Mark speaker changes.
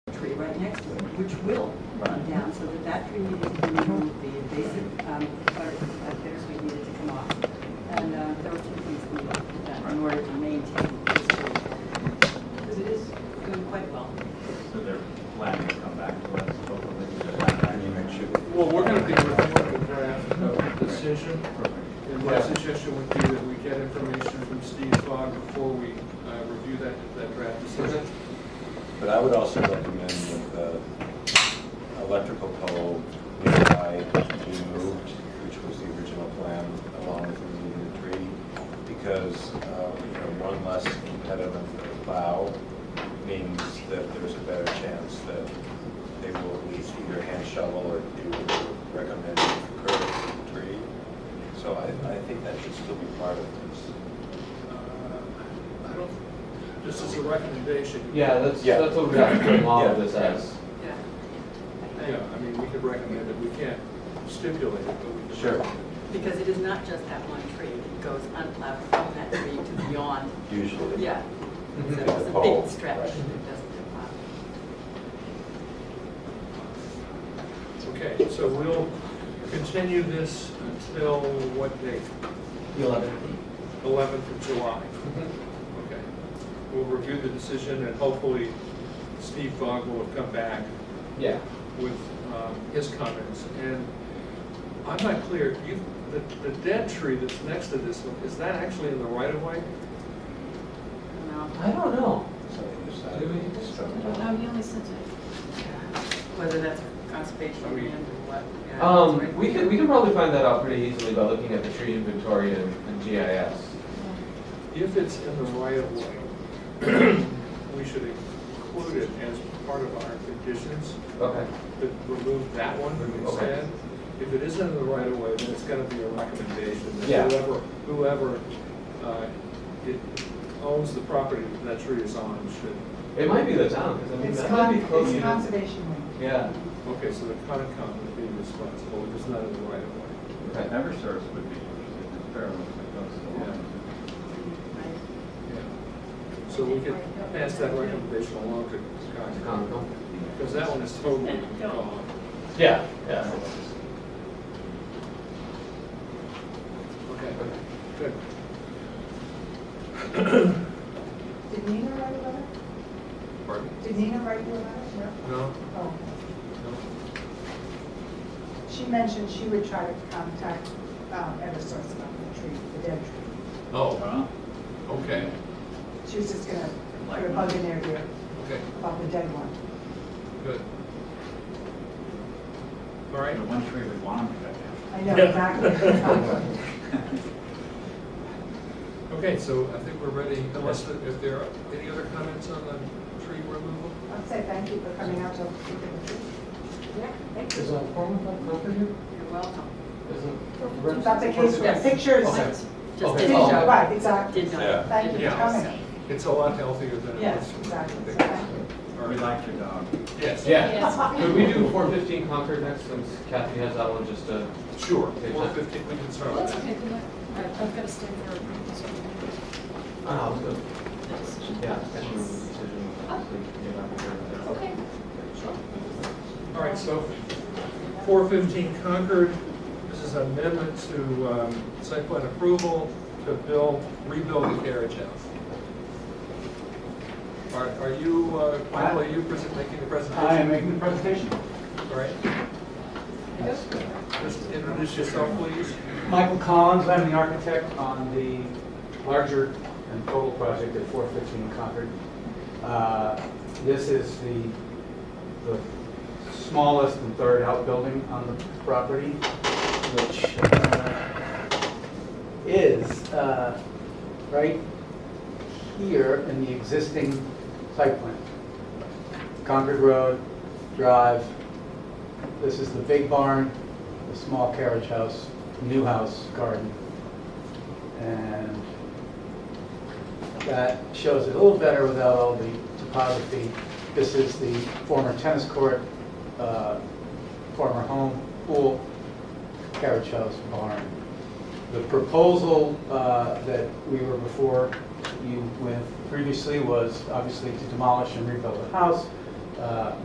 Speaker 1: tree right next to it, which will run down, so that that tree needed to be removed, the invasive, um, butter- uh, bittersweet needed to come off. And uh, there were two things we needed to be done in order to maintain this tree. Because it is doing quite well.
Speaker 2: So they're planning to come back to us, hopefully, with that.
Speaker 3: I mean, it should.
Speaker 4: Well, we're gonna be working on the draft of decision, and my suggestion would be that we get information from Steve Fogg before we uh, review that, that draft decision.
Speaker 3: But I would also recommend that the electrical pole nearby be moved, which was the original plan, along with removing the tree, because, uh, you know, one less impediment for the plow means that there's a better chance that they will at least either hand shovel or do what they recommend for curb tree. So I, I think that should still be part of this.
Speaker 4: Uh, I don't, this is a recommendation.
Speaker 5: Yeah, that's,
Speaker 3: Yeah.
Speaker 5: that's what we have to
Speaker 3: Yeah.
Speaker 5: model this as.
Speaker 1: Yeah.
Speaker 4: Yeah, I mean, we could recommend it, we can't stipulate it, but we could.
Speaker 3: Sure.
Speaker 4: recommend it.
Speaker 1: Because it is not just that one tree, it goes unplowed from that tree to beyond,
Speaker 3: Usually.
Speaker 1: yeah. So
Speaker 3: Mhm.
Speaker 1: it's a
Speaker 3: Pole,
Speaker 1: big stretch,
Speaker 3: right.
Speaker 1: it doesn't get plowed.
Speaker 4: Okay, so we'll continue this until what date?
Speaker 5: The 11th.
Speaker 4: 11th of July.
Speaker 5: Mm-hmm.
Speaker 4: Okay. We'll review the decision and hopefully Steve Fogg will have come back
Speaker 5: Yeah.
Speaker 4: with um, his comments. And I'm not clear, you, the, the dead tree that's next to this one, is that actually in the right of way?
Speaker 1: No.
Speaker 5: I don't know.
Speaker 3: So they
Speaker 5: Do we-
Speaker 3: decided to start.
Speaker 6: Oh, he only sent it.
Speaker 1: Whether that's conservation
Speaker 4: Are we-
Speaker 1: land or what. yeah, that's
Speaker 5: Um,
Speaker 1: right.
Speaker 5: we could, we could probably find that out pretty easily by looking at the tree inventory and and GIS.
Speaker 4: If it's in the right of way, we should include it as part of our conditions,
Speaker 5: Okay.
Speaker 4: but remove that one
Speaker 5: Remove, okay.
Speaker 4: instead. If it isn't in the right of way, then it's gonna be a recommendation
Speaker 5: Yeah.
Speaker 4: that whoever, whoever uh, it owns the property that that tree is on should,
Speaker 5: It might be the town, because I mean,
Speaker 6: It's
Speaker 5: that might
Speaker 6: con,
Speaker 5: be close
Speaker 6: it's
Speaker 5: enough.
Speaker 6: conservation land.
Speaker 5: Yeah,
Speaker 4: okay, so the Concom would be responsible if it's not in the right of way.
Speaker 5: okay.
Speaker 2: Eversource would be interested in experiments with those along.
Speaker 1: Right.
Speaker 4: So we could pass that recommendation along to Concom,
Speaker 5: Concom.
Speaker 4: because that one is totally gone.
Speaker 5: Yeah, yeah.
Speaker 4: Okay, good.
Speaker 6: Did Nina write a letter?
Speaker 4: Pardon?
Speaker 6: Did Nina write you a letter? No.
Speaker 4: No,
Speaker 6: Oh.
Speaker 4: no.
Speaker 6: She mentioned she would try to contact um, Eversource about the tree, the dead tree.
Speaker 4: Oh,
Speaker 2: Huh?
Speaker 4: okay,
Speaker 6: She was just gonna put a bug in their ear
Speaker 4: okay,
Speaker 6: about the dead one.
Speaker 4: good. All
Speaker 2: The
Speaker 4: right,
Speaker 2: one tree we want them to cut down.
Speaker 6: I know exactly.
Speaker 4: okay, so I think we're ready, unless, there- if there are any other comments on the tree removal?
Speaker 6: I'll say thank you for coming out to look at the tree.
Speaker 1: Yeah, thank
Speaker 5: Is
Speaker 1: you.
Speaker 5: a form of that company here?
Speaker 1: You're welcome.
Speaker 5: Is it?
Speaker 6: That's a case where
Speaker 1: Yes.
Speaker 6: pictures.
Speaker 5: Okay.
Speaker 1: Just
Speaker 5: Okay.
Speaker 1: didn't
Speaker 5: Oh.
Speaker 1: know.
Speaker 6: Right, exactly.
Speaker 1: Did not.
Speaker 3: Yeah.
Speaker 6: Thank you
Speaker 4: Yeah.
Speaker 6: for coming.
Speaker 4: It's a lot healthier than it
Speaker 6: Yes,
Speaker 4: was.
Speaker 6: exactly. So thank you.
Speaker 4: All
Speaker 2: We
Speaker 4: right.
Speaker 2: like your dog.
Speaker 4: Yes.
Speaker 5: Yeah. Could we do four fifteen Concord next, since Kathy has that one just to?
Speaker 4: Sure, four fifteen, we can start
Speaker 7: That's
Speaker 4: with
Speaker 7: okay,
Speaker 4: that.
Speaker 7: do that. I- I've got to stay for a
Speaker 5: Oh, good.
Speaker 7: decision.
Speaker 5: Yeah. Okay.
Speaker 7: Okay.
Speaker 4: All right, so four fifteen Concord, this is an amendment to um, site plan approval to build, rebuild the carriage house. Are, are you, uh, Michael, are you pres- making the presentation?
Speaker 8: I am making the presentation.
Speaker 4: All right. Just introduce yourself, please.
Speaker 8: Michael Collins, I'm the architect on the larger and total project at 415 Concord. Uh, This is the, the smallest and third outbuilding on the property, which uh, is uh, right here in the existing site plan. Concord Road, Drive, this is the big barn, the small carriage house, new house, garden. And that shows it a little better without all the topography. This is the former tennis court, uh, former home, pool, carriage house, barn. The proposal uh, that we were before you with previously was obviously to demolish and rebuild the house. Uh,